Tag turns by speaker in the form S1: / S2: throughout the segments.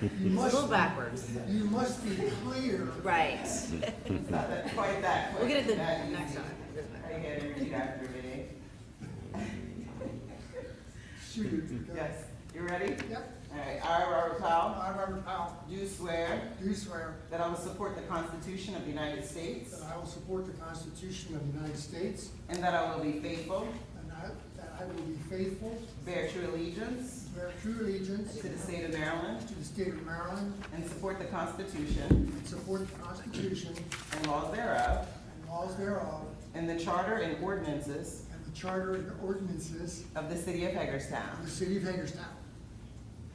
S1: You
S2: It's a
S1: must,
S2: little backwards.
S1: you must be clear.
S2: Right.
S3: It's not that- quite that quick.
S2: We'll get it the
S3: that easy.
S2: next time. We'll get it the
S3: I
S2: next time.
S3: had to repeat after me.
S1: Shoot. go.
S3: Yes, you ready?
S1: Yep,
S3: All right, I, Robert Powell,
S1: I, Robert Powell,
S3: do swear
S1: do swear
S3: that I will support the Constitution of the United States
S1: that I will support the Constitution of the United States
S3: and that I will be faithful,
S1: and I, that I will be faithful,
S3: bear true allegiance
S1: bear true allegiance
S3: to the state of Maryland,
S1: to the state of Maryland,
S3: and support the Constitution
S1: and support the Constitution
S3: and laws thereof,
S1: and laws thereof,
S3: and the charter and ordinances
S1: and the charter and ordinances
S3: of the city of
S1: of
S3: Hagerstown,
S1: the city of Hagerstown,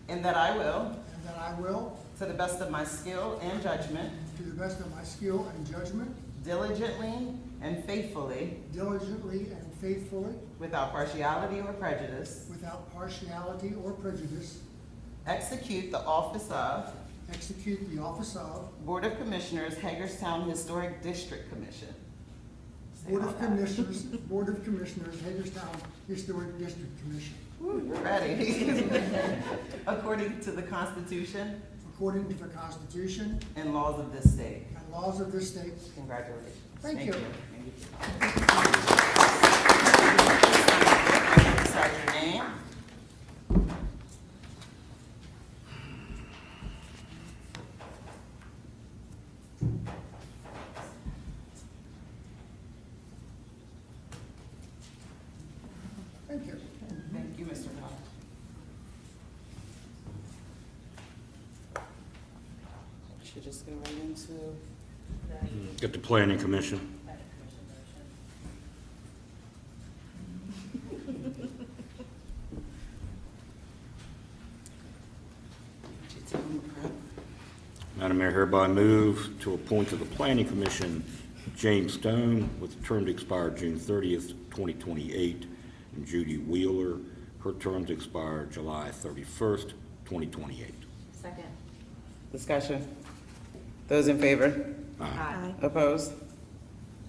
S3: and that I will,
S1: and that I will,
S3: to the best of my skill and judgment,
S1: to the best of my skill and judgment,
S3: diligently and faithfully,
S1: diligently and faithfully,
S3: without partiality or prejudice,
S1: without partiality or prejudice,
S3: Execute the office of
S1: execute the office of
S3: Board of Commissioners, Hagerstown Historic District Commission. Say
S1: Board
S3: all
S1: of
S3: that.
S1: Commissioners, Board of Commissioners, Hagerstown Historic District Commission,
S3: Woo, You're ready. According to the Constitution
S1: according to the Constitution
S3: and laws of this state.
S1: and laws of this state.
S3: Congratulations.
S1: Thank you.
S3: Thank you. Sign your name.
S1: Thank you.
S3: Thank you, Mr. Powell. Should just go right into
S4: Get the planning commission.
S3: detail and prep.
S4: Madam Mayor, hereby move to appoint to the planning commission James Stone with a term to expire June thirtieth, twenty twenty-eight, and Judy Wheeler, her term to expire July thirty-first, twenty twenty-eight.
S2: Second.
S3: Discussion. Those in favor?
S2: Aye.
S3: Opposed?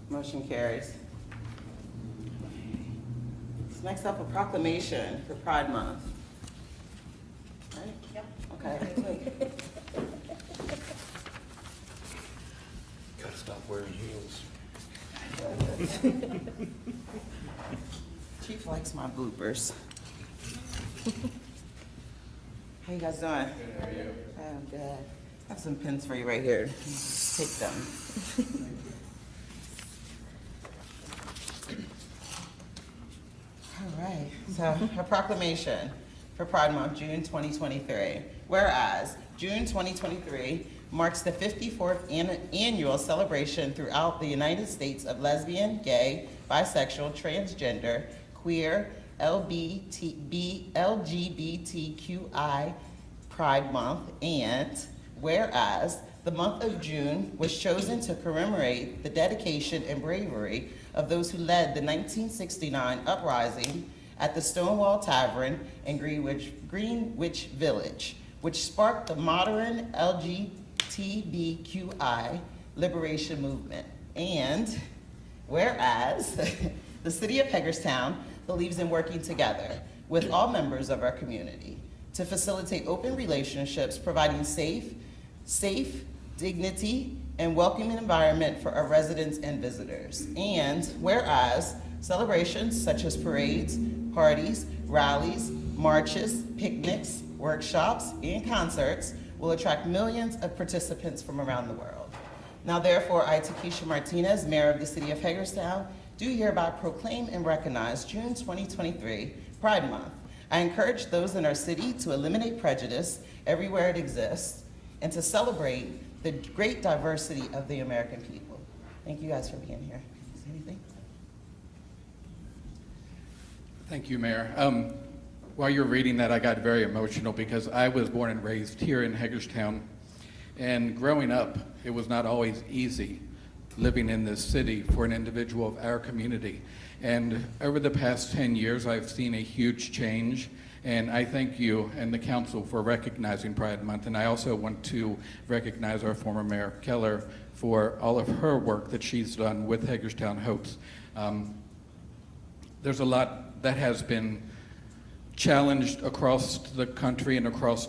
S3: Motion carries. So Next up, a proclamation for Pride Month. Right? Yep. Okay.
S4: Gotta stop wearing heels.
S3: Chief likes my bloopers. How you guys doing? Good, how are you? I'm good. I have some pins for you right here. Take them. All right, so a proclamation for Pride Month, June 2023. Whereas, June 2023 marks the 54th an- annual celebration throughout the United States of lesbian, gay, bisexual, transgender, queer, LBT B- LGBTQI Pride Month, and whereas the month of June was chosen to commemorate the dedication and bravery of those who led the 1969 uprising at the Stonewall Tavern in Greenwich, Greenwich Village, which sparked the modern LGBTQI liberation movement. And Whereas the City of Hagerstown believes in working together with all members of our community to facilitate open relationships, providing safe, safe, dignity, and welcoming environment for our residents and visitors. And whereas celebrations such as parades, parties, rallies, marches, picnics, workshops, and concerts will attract millions of participants from around the world. Now therefore, I, Takesha Martinez, Mayor of the City of Hagerstown, do hereby proclaim and recognize June 2023 Pride Month. I encourage those in our city to eliminate prejudice everywhere it exists and to celebrate the great diversity of the American people. Thank you guys for being here. Is there anything?
S5: Thank you, Mayor. Um, While you were reading that, I got very emotional because I was born and raised here in Hagerstown. And growing up, it was not always easy living in this city for an individual of our community. And over the past 10 years, I've seen a huge change. And I thank you and the council for recognizing Pride Month. And I also want to recognize our former Mayor Keller for all of her work that she's done with Hagerstown Hopes. Um, there's a lot that has been challenged across the country and across